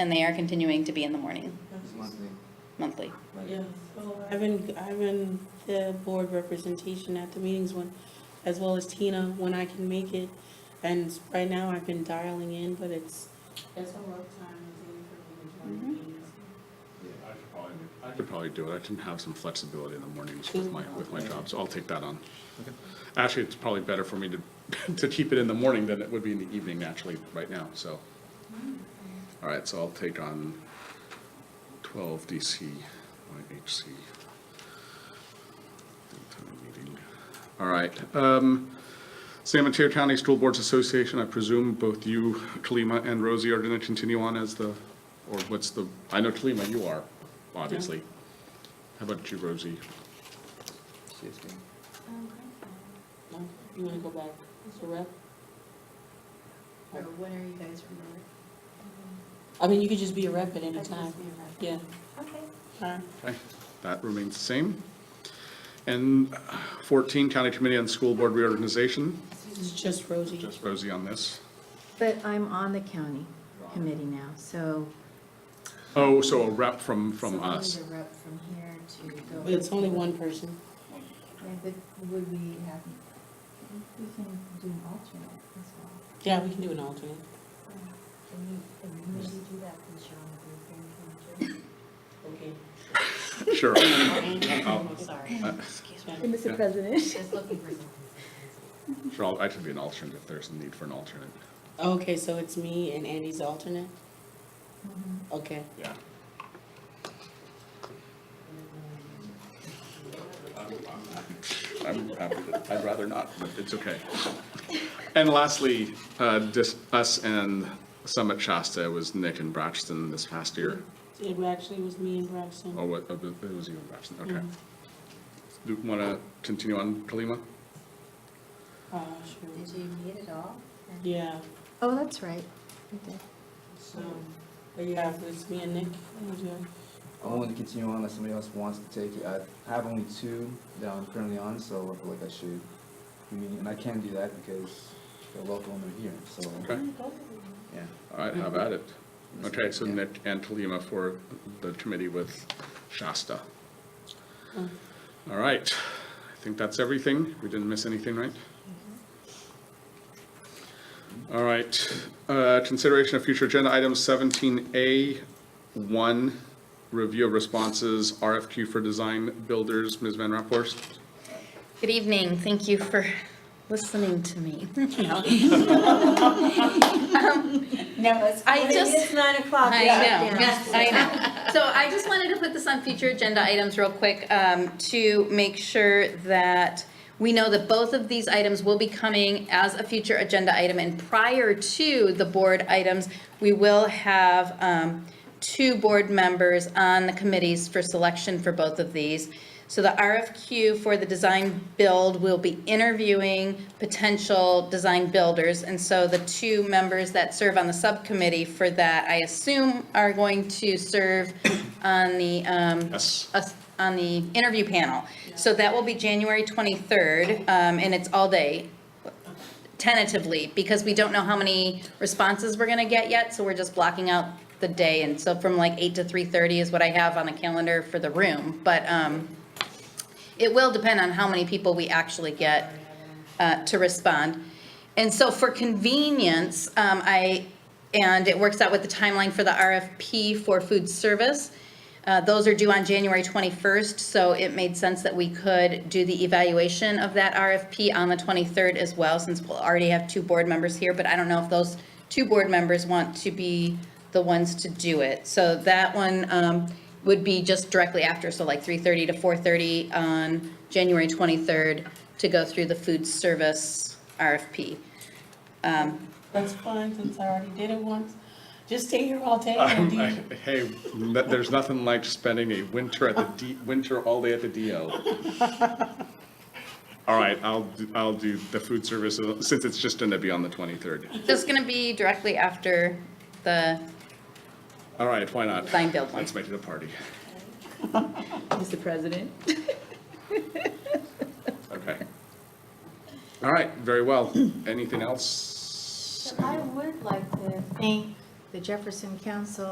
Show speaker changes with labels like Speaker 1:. Speaker 1: and they are continuing to be in the morning,
Speaker 2: It's monthly,
Speaker 1: monthly.
Speaker 2: like,
Speaker 3: Yeah, so I've been, I've been the board representation at the meetings when, as well as Tina, when I can make it. And right now I've been dialing in, but it's, Mm-hmm. it's a rough time I think, for me to join meetings.
Speaker 2: yeah.
Speaker 4: I could probably- I could probably do it. I can have some flexibility in the mornings with my, with my job, so I'll take that on. Actually, it's probably better for me to, to keep it in the morning than it would be in the evening naturally right now, so. All right, so I'll take on twelve DC, YHC. All right, um, San Mateo County School Boards Association, I presume both you, Kalima, and Rosie are going to continue on as the, or what's the, I know Kalima, you are, obviously. How about you, Rosie?
Speaker 2: Shifting.
Speaker 3: No? You wanna go back to rep?
Speaker 5: Or when are you guys remote?
Speaker 3: I mean, you could just be a rep at any time, yeah. Uh,
Speaker 5: Okay.
Speaker 3: Alright.
Speaker 4: Okay, that remains the same. And 14, County Committee on School Board Reorganization,
Speaker 3: It's just Rosie.
Speaker 4: just Rosie on this.
Speaker 6: But I'm on the county committee now, so.
Speaker 4: Oh, so a rep from, from
Speaker 5: So we
Speaker 4: us.
Speaker 5: need a rep from here to go.
Speaker 3: But it's only one person.
Speaker 5: And but would we have, we can do an alternate as well.
Speaker 3: Yeah, we can do an alternate.
Speaker 5: Can you, can you maybe do that for Sean
Speaker 3: Okay.
Speaker 4: Sure.
Speaker 3: I'm sorry.
Speaker 1: Excuse me.
Speaker 6: Mr. President.
Speaker 5: Just looking for someone.
Speaker 4: Sure, I'll- I could be an alternate if there's a need for an alternate.
Speaker 3: Okay, so it's me and Andy's the alternate?
Speaker 5: Mm-hmm.
Speaker 3: Okay.
Speaker 4: Yeah. I'm, I'm, I'd rather not, but it's okay. And lastly, uh, just us and Summit Shasta was Nick and Braxton this past year.
Speaker 3: It actually was me and Braxton.
Speaker 4: Oh, what, oh, it was you and Braxton, okay. Do you want to continue on, Kalima?
Speaker 3: Oh,
Speaker 5: Did
Speaker 3: sure.
Speaker 5: you meet at all?
Speaker 3: Yeah,
Speaker 6: Oh, that's right.
Speaker 3: so, but yeah, it's me and Nick. What do you do?
Speaker 2: I want to continue on unless somebody else wants to take it. I have only two that I'm currently on, so I feel like I should. I mean, and I can do that because they're local and they're here, so,
Speaker 4: Okay,
Speaker 2: yeah.
Speaker 4: all right, how about it? Okay, so
Speaker 2: Yeah.
Speaker 4: Nick and Kalima for the committee with Shasta.
Speaker 3: Oh,
Speaker 4: All right, I think that's everything. We didn't miss anything, right? All right, uh, consideration of future agenda items, seventeen A, one, review of responses, RFQ for design builders, Ms. Van Raphorst.
Speaker 1: Good evening, thank you for listening to me.
Speaker 5: No, it's,
Speaker 1: I when it just- is
Speaker 5: nine o'clock.
Speaker 1: I know, I know. So I just wanted to put this on future agenda items real quick um, to make sure that we know that both of these items will be coming as a future agenda item. And prior to the board items, we will have um, two board members on the committees for selection for both of these. So the RFQ for the design build will be interviewing potential design builders. And so the two members that serve on the subcommittee for that, I assume, are going to serve on the, um,
Speaker 4: Yes.
Speaker 1: us- on the interview panel. So that will be January 23rd, um, and it's all day tentatively, because we don't know how many responses we're gonna get yet, so we're just blocking out the day, and so from like eight to three thirty is what I have on the calendar for the room, but, um, it will depend on how many people we actually get, uh, to respond. And so for convenience, um, I, and it works out with the timeline for the RFP for food service. Uh, those are due on January twenty-first, so it made sense that we could do the evaluation of that RFP on the twenty-third as well, since we'll already have two board members here, but I don't know if those two board members want to be the ones to do it. So that one, um, would be just directly after, so like three-thirty to four-thirty on January twenty-third to go through the food service RFP.
Speaker 3: That's fine, since I already did it once. Just stay here all day and
Speaker 4: Um,
Speaker 3: do
Speaker 4: I- Hey, no- there's nothing like spending a winter at the D, winter all day at the DL. All right, I'll, do- I'll do the food service, uh, since it's just going to be on the 23rd.
Speaker 1: This is gonna be directly after the
Speaker 4: All right, why not?
Speaker 1: Design build one.
Speaker 4: Let's make it a party.
Speaker 6: Mr. President.
Speaker 4: Okay. All right, very well. Anything else?
Speaker 6: I would like to thank the Jefferson Council